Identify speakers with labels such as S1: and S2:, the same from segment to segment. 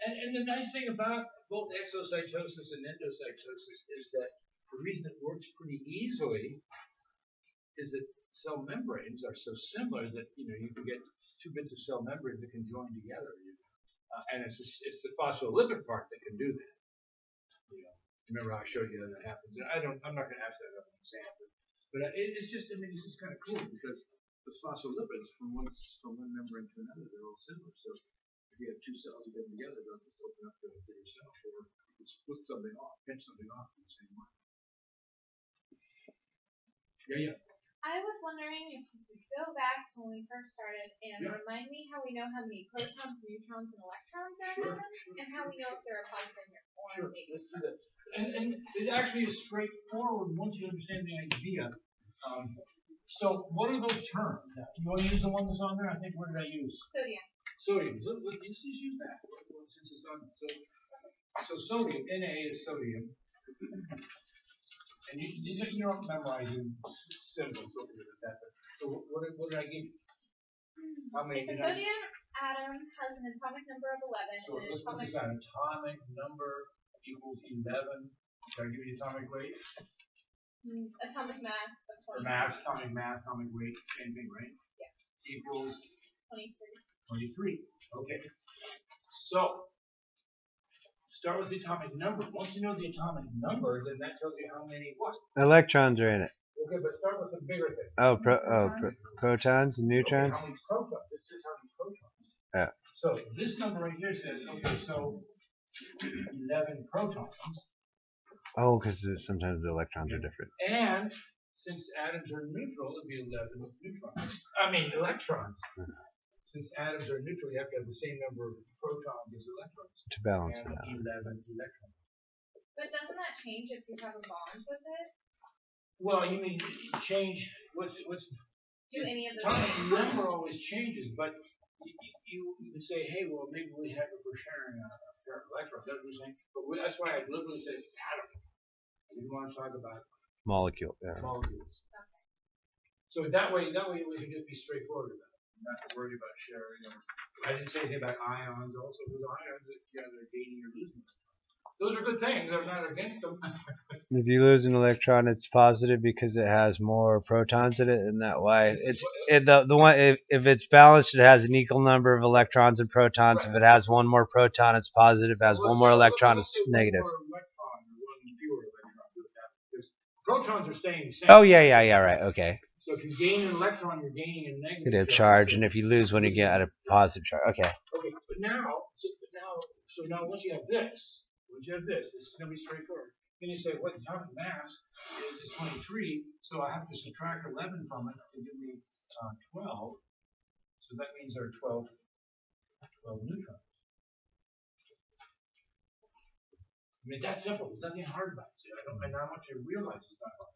S1: and the nice thing about both exocytosis and endocytosis is that the reason it works pretty easily is that cell membranes are so similar that you know you can get two bits of cell membrane that can join together. You know? uh, and it's this- it's the phospholipid part that can do that. You know, remember how I showed you how that happens. And I don't. I'm not going to ask that as an example, but uh, it, it's just. I mean, it's just kind of cool because those phospholipids from one s- from one membrane to another, they're all similar. So if you have two cells, you get them together, they'll just open up to a bigger cell, or you can split something off, pinch something off in the same way. Yeah, yeah.
S2: I was wondering if you could go back to when we first started and
S1: Yeah.
S2: remind me how we know how many protons, neutrons, and electrons are
S1: Sure,
S2: in atoms,
S1: sure,
S2: and how we know if they're a positive or
S1: Sure,
S2: negative.
S1: let's do that. And, and it actually is straightforward once you understand the idea. Um, so what are those terms? You want to use the one that's on there? I think, what did I use?
S2: Sodium.
S1: Sodium, let, let, let's just use that, Well, well, since it's on, so, so sodium, Na is sodium. And you, you don't, you don't memorize in s- symbols, don't worry about that, but, so what, what did- what did I give you? How many
S2: If a
S1: did I?
S2: sodium atom has an atomic number of 11
S1: So
S2: and an
S1: let's put
S2: atomic
S1: this on, atomic number equals eleven, did I give you the atomic weight?
S2: mm, atomic mass of
S1: Or
S2: 20,
S1: mass, atomic mass, atomic weight, same thing, right?
S2: Yeah.
S1: Equals 23.
S2: 23.
S1: Okay. So, start with the atomic number. Once you know the atomic number, then that tells you how many what.
S3: Electrons are in it.
S1: Okay, but start with the bigger thing.
S3: Oh, pro- oh pro- protons and neutrons.
S1: Okay, how many protons? This is how many protons.
S3: Yeah.
S1: So, this number right here says, okay, so 11 protons.
S3: Oh, because sometimes the electrons are different.
S1: And since atoms are neutral, it'd be 11 neutrons. I mean, electrons. Since atoms are neutral, you have to have the same number of protons as electrons.
S3: To balance
S1: And
S3: them out.
S1: 11 electrons.
S2: But doesn't that change if you have a bond with it?
S1: Well, you mean change, what's, what's,
S2: Do any of those?
S1: atomic number always changes, but you, you, you could say, hey, well, maybe we have, if we're sharing a a pair of electrons, that's what I'm saying. But we- that's why I deliberately said atom. I didn't want to talk about
S3: Molecule. Yeah.
S1: molecules. So that way, that way we can just be straightforward about it, not worried about sharing. Or, I didn't say anything about ions also, because ions, you know, they're gaining or losing. Those are good things, I'm not against them.
S3: If you lose an electron, it's positive because it has more protons in it, and that way it's it, the the one if, if it's balanced, it has an equal number of electrons and protons. If it has one more proton, it's positive. If it has
S1: Well,
S3: one
S1: so
S3: more
S1: let's
S3: electron,
S1: say
S3: it's
S1: one
S3: negative.
S1: more electron or one fewer electron, do that, because Protons are staying the same.
S3: Oh yeah, yeah, yeah. Right. Okay.
S1: So if you gain an electron, you're gaining a negative.
S3: Negative charge, and if you lose one, you get a positive charge. Okay.
S1: Okay, but now, so but now, so now once you have this, once you have this, this is gonna be straightforward. Then you say, what the atomic mass is, is twenty-three, so I have to subtract eleven from it to give me, uh, twelve. So that means there are 12 12 neutrons. I mean, it's that simple, there's nothing hard about it. I don't, and I want you to realize it's not hard.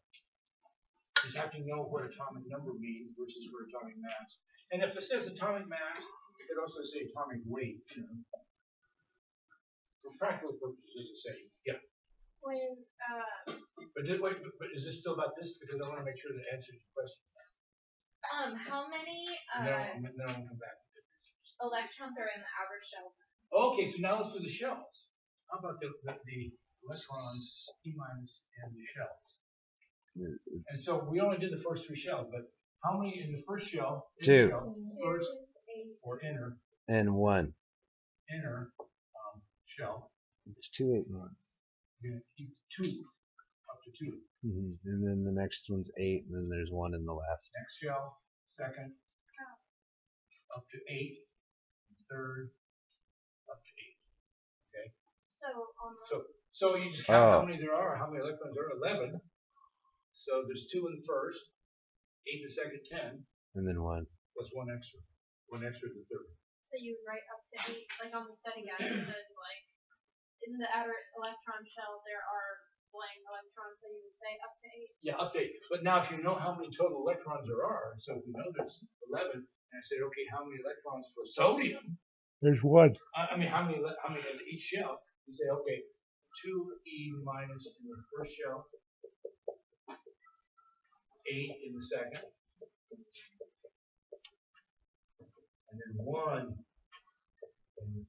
S1: You just have to know what atomic number means versus what atomic mass. And if it says atomic mass, it could also say atomic weight, you know. For practical purposes, it's saying, yeah.
S2: When uh,
S1: But did, wait, but- but is this still about this? Because I want to make sure that it answers your question.
S2: um, how many
S1: No,
S2: uh,
S1: I'm- no, I'll come back. to it.
S2: electrons are in the outer shell?
S1: Okay, so now let's do the shells. How about the, the, the electrons, p minus, and the shells? And so we only did the first three shells, but how many in the first shell? inner
S3: Two.
S1: shell, First
S2: eight.
S1: or inner,
S3: And one.
S1: inner um, shell,
S3: It's two eight one.
S1: you're gonna keep two, up to two.
S3: Mm-hmm. And then the next one's eight, and then there's one in the last.
S1: Next shell, second, up to eight, third, up to eight.
S2: So on
S1: So, so you just count how
S3: Oh.
S1: many there are, how many electrons there are, eleven. So there's two in the first, eight in the second, ten.
S3: And then one.
S1: plus one extra. One extra to third.
S2: so you write up to eight, like on the study guide, it says like in the outer electron shell there are blank electrons, so you would say up to eight.
S1: Yeah, update. But now if you know how many total electrons there are, so if we know there's 11, and I said, okay, how many electrons for sodium?
S3: There's one.
S1: I, I mean, how many, ele- how many in each shell? You say, okay, 2e minus in the first shell, 8 in the second, and then 1 in the